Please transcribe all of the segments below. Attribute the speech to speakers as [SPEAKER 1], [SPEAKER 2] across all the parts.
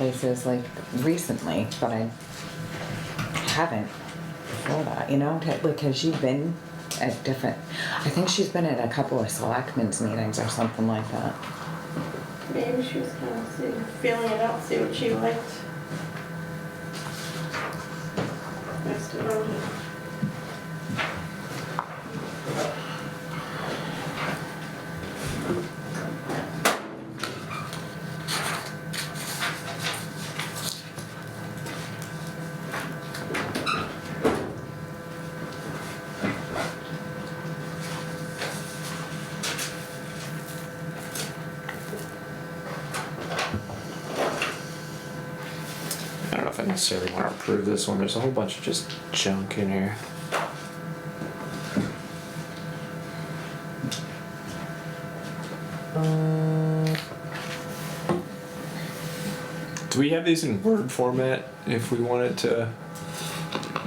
[SPEAKER 1] places like recently, but I haven't before that, you know, t- because you've been at different, I think she's been at a couple of selectmen's meetings or something like that.
[SPEAKER 2] Maybe she was kind of see, feeling it out, see what she liked. Next to voting.
[SPEAKER 3] I don't know if I necessarily want to approve this one. There's a whole bunch of just junk in here. Uh. Do we have these in Word format if we wanted to?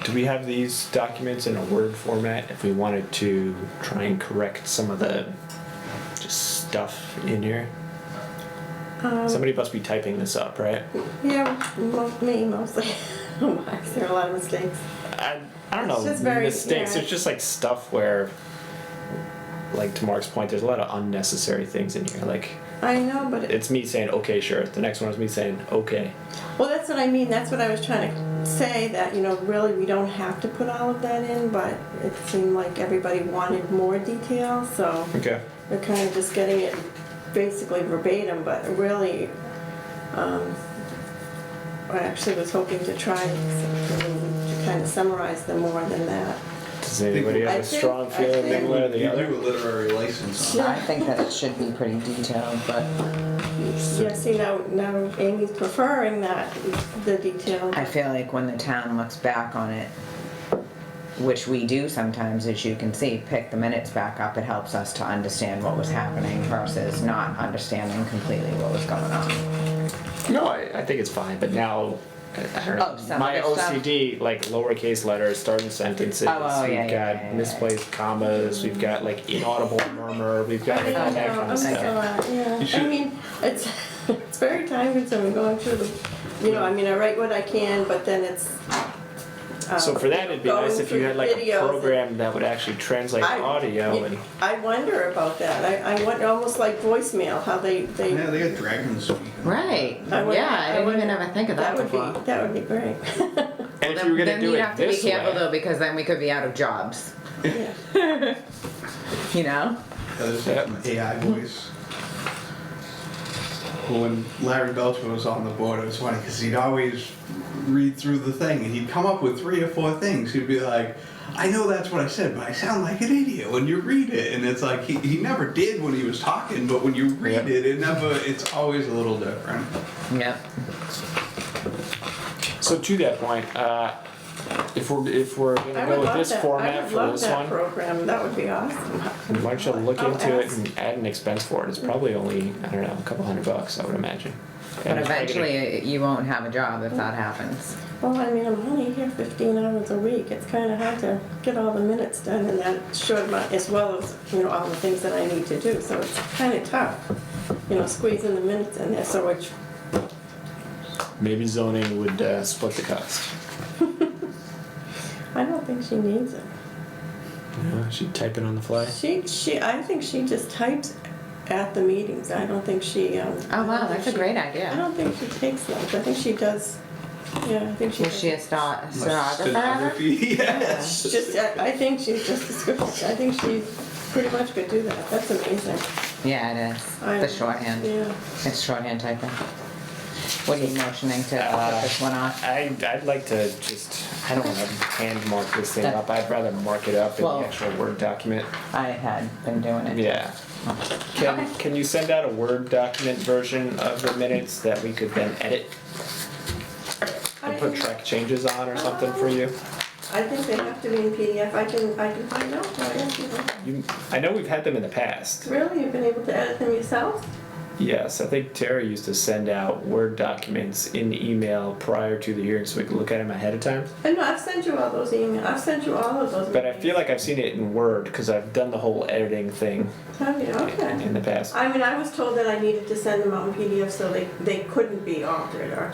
[SPEAKER 3] Do we have these documents in a Word format if we wanted to try and correct some of the just stuff in here? Somebody must be typing this up, right?
[SPEAKER 2] Yeah, mo- me mostly. Mark, there are a lot of mistakes.
[SPEAKER 3] I, I don't know
[SPEAKER 2] It's just very-
[SPEAKER 3] mistakes.
[SPEAKER 2] yeah.
[SPEAKER 3] There's just like stuff where, like to Mark's point, there's a lot of unnecessary things in here. Like
[SPEAKER 2] I know, but it,
[SPEAKER 3] it's me saying okay, sure. The next one is me saying okay.
[SPEAKER 2] well, that's what I mean. That's what I was trying to say. That you know, really, we don't have to put all of that in, but it seemed like everybody wanted more detail, so
[SPEAKER 3] Okay.
[SPEAKER 2] we're kind of just getting it basically verbatim. But really, um, I actually was hoping to try to kind of summarize them more than that.
[SPEAKER 3] Does anybody
[SPEAKER 2] I
[SPEAKER 3] have a
[SPEAKER 2] think-
[SPEAKER 3] strong
[SPEAKER 2] I
[SPEAKER 3] feeling
[SPEAKER 2] think-
[SPEAKER 3] one way or the
[SPEAKER 4] You do
[SPEAKER 3] other?
[SPEAKER 4] a literary license on
[SPEAKER 1] I think that it should be pretty detailed, but
[SPEAKER 2] Yeah, see, now, now Amy's preferring that, the detail.
[SPEAKER 1] I feel like when the town looks back on it, which we do sometimes, as you can see, pick the minutes back up, it helps us to understand what was happening versus not understanding completely what was going on.
[SPEAKER 3] No, I, I think it's fine. But now. I I don't
[SPEAKER 1] Oh,
[SPEAKER 3] know.
[SPEAKER 1] some
[SPEAKER 3] My
[SPEAKER 1] other stuff?
[SPEAKER 3] OCD, like lowercase letters, starting sentences.
[SPEAKER 1] Oh, oh,
[SPEAKER 3] we've
[SPEAKER 1] yeah,
[SPEAKER 3] got
[SPEAKER 1] yeah, yeah, yeah.
[SPEAKER 3] misplaced commas. We've got like inaudible murmur. We've got
[SPEAKER 2] I
[SPEAKER 3] like all that
[SPEAKER 2] know,
[SPEAKER 3] kind
[SPEAKER 2] I'm
[SPEAKER 3] of
[SPEAKER 2] sorry,
[SPEAKER 3] stuff.
[SPEAKER 2] yeah, I
[SPEAKER 4] should-
[SPEAKER 2] mean, it's, it's very time consuming going through the, you know, I mean, I write what I can, but then it's. um,
[SPEAKER 3] So for that, it'd be nice if you had like a
[SPEAKER 2] videos and-
[SPEAKER 3] program that would actually translate
[SPEAKER 2] I-
[SPEAKER 3] audio
[SPEAKER 2] you-
[SPEAKER 3] and.
[SPEAKER 2] I wonder about that, I, I wonder, almost like voicemail, how they,
[SPEAKER 4] it.
[SPEAKER 2] they.
[SPEAKER 4] Yeah, they got dragons.
[SPEAKER 1] Right,
[SPEAKER 2] I would-
[SPEAKER 1] yeah, I didn't
[SPEAKER 2] would-
[SPEAKER 1] even ever think of that
[SPEAKER 2] would
[SPEAKER 1] before.
[SPEAKER 2] be. That would be great,
[SPEAKER 3] And if
[SPEAKER 1] Then-
[SPEAKER 3] you were gonna
[SPEAKER 1] then
[SPEAKER 3] do
[SPEAKER 1] you'd
[SPEAKER 3] it
[SPEAKER 1] have to be
[SPEAKER 3] this
[SPEAKER 1] careful though
[SPEAKER 3] way,
[SPEAKER 1] because then we could be out of jobs
[SPEAKER 2] yeah.
[SPEAKER 1] you know
[SPEAKER 4] Others have an AI voice. Well, When Larry Belcher was on the board, it was funny because he'd always read through the thing and he'd come up with three or four things. He'd be like, I know that's what I said, but I sound like an idiot when you read it. And it's like, he, he never did when he was talking, but when you read
[SPEAKER 3] Yeah.
[SPEAKER 4] it, it never, it's always a little different.
[SPEAKER 1] yeah
[SPEAKER 3] so to that point, uh, if we're, if we're
[SPEAKER 2] I
[SPEAKER 3] gonna
[SPEAKER 2] would
[SPEAKER 3] go with
[SPEAKER 2] love
[SPEAKER 3] this
[SPEAKER 2] that, I
[SPEAKER 3] format
[SPEAKER 2] would
[SPEAKER 3] for
[SPEAKER 2] love
[SPEAKER 3] this
[SPEAKER 2] that Oh,
[SPEAKER 3] one,
[SPEAKER 2] program, that would be awesome.
[SPEAKER 3] why don't you look
[SPEAKER 2] I'll
[SPEAKER 3] into it
[SPEAKER 2] ask.
[SPEAKER 3] and add an expense for it? It's probably only, I don't know, a couple hundred bucks, I would imagine.
[SPEAKER 1] but
[SPEAKER 3] And it's probably gonna-
[SPEAKER 1] eventually you won't have a job if that happens
[SPEAKER 2] Well, I mean, I'm only here 15 hours a week. It's kind of hard to get all the minutes done in that short amount, as well as, you know, all the things that I need to do. So it's kind of tough, you know, squeezing the minutes in there. So which,
[SPEAKER 3] Maybe zoning would, uh, split the cost.
[SPEAKER 2] I don't think she needs it.
[SPEAKER 3] You know, she'd type it on the fly.
[SPEAKER 2] She, she, I think she just types at the meetings. I don't think she, um. I
[SPEAKER 1] oh
[SPEAKER 2] don't
[SPEAKER 1] wow
[SPEAKER 2] think
[SPEAKER 1] that's a
[SPEAKER 2] she-
[SPEAKER 1] great
[SPEAKER 2] I
[SPEAKER 1] idea
[SPEAKER 2] don't think she takes notes. I think she does, yeah, I think she.
[SPEAKER 1] was
[SPEAKER 2] does.
[SPEAKER 1] she a sta- stenographer
[SPEAKER 4] Stenography, yeah.
[SPEAKER 2] She's just, I, I think she's just, descriptive. I think she pretty much could do that. That's amazing.
[SPEAKER 1] yeah it is
[SPEAKER 2] I-
[SPEAKER 1] the shorthand
[SPEAKER 2] Yeah.
[SPEAKER 1] it's shorthand typing what are you motioning to
[SPEAKER 3] Uh,
[SPEAKER 1] put this one off
[SPEAKER 3] I, I'd like to just, I don't wanna hand mark this thing up, I'd rather mark it up in
[SPEAKER 1] Well-
[SPEAKER 3] the actual Word document.
[SPEAKER 1] i had been doing it Oh.
[SPEAKER 3] Yeah. Can, can you send out a Word document version of the minutes that we could then edit and put
[SPEAKER 2] I-
[SPEAKER 3] track changes on or something for you?
[SPEAKER 2] I think they have to be in PDF, I can, I can find out, for you.
[SPEAKER 3] You, I know we've had them in the past.
[SPEAKER 2] really, you've been able to edit them yourself?
[SPEAKER 3] Yes, I think Terry used to send out Word documents in email prior to the hearing so we could look at them ahead of time.
[SPEAKER 2] And no, I've sent you all those emails, I've sent you all of those.
[SPEAKER 3] But I feel like I've seen it in Word because I've done the whole editing thing
[SPEAKER 2] emails. Have you, okay.
[SPEAKER 3] in the past.
[SPEAKER 2] I mean, I was told that I needed to send them out in PDF so they, they couldn't be altered or